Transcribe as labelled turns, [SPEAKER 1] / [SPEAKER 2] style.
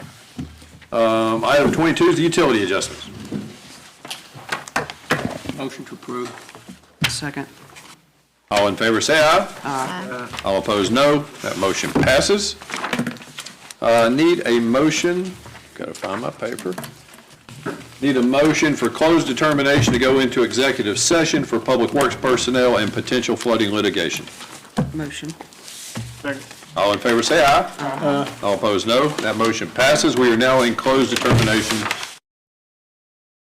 [SPEAKER 1] Um, Item 22 is the utility adjustments.
[SPEAKER 2] Motion to approve.
[SPEAKER 3] Second.
[SPEAKER 1] All in favor, say aye. All opposed, no. That motion passes. Uh, Need a motion, gotta find my paper. Need a motion for closed determination to go into executive session for public works personnel and potential flooding litigation.
[SPEAKER 3] Motion.
[SPEAKER 1] All in favor, say aye. All opposed, no. That motion passes. We are now in closed determination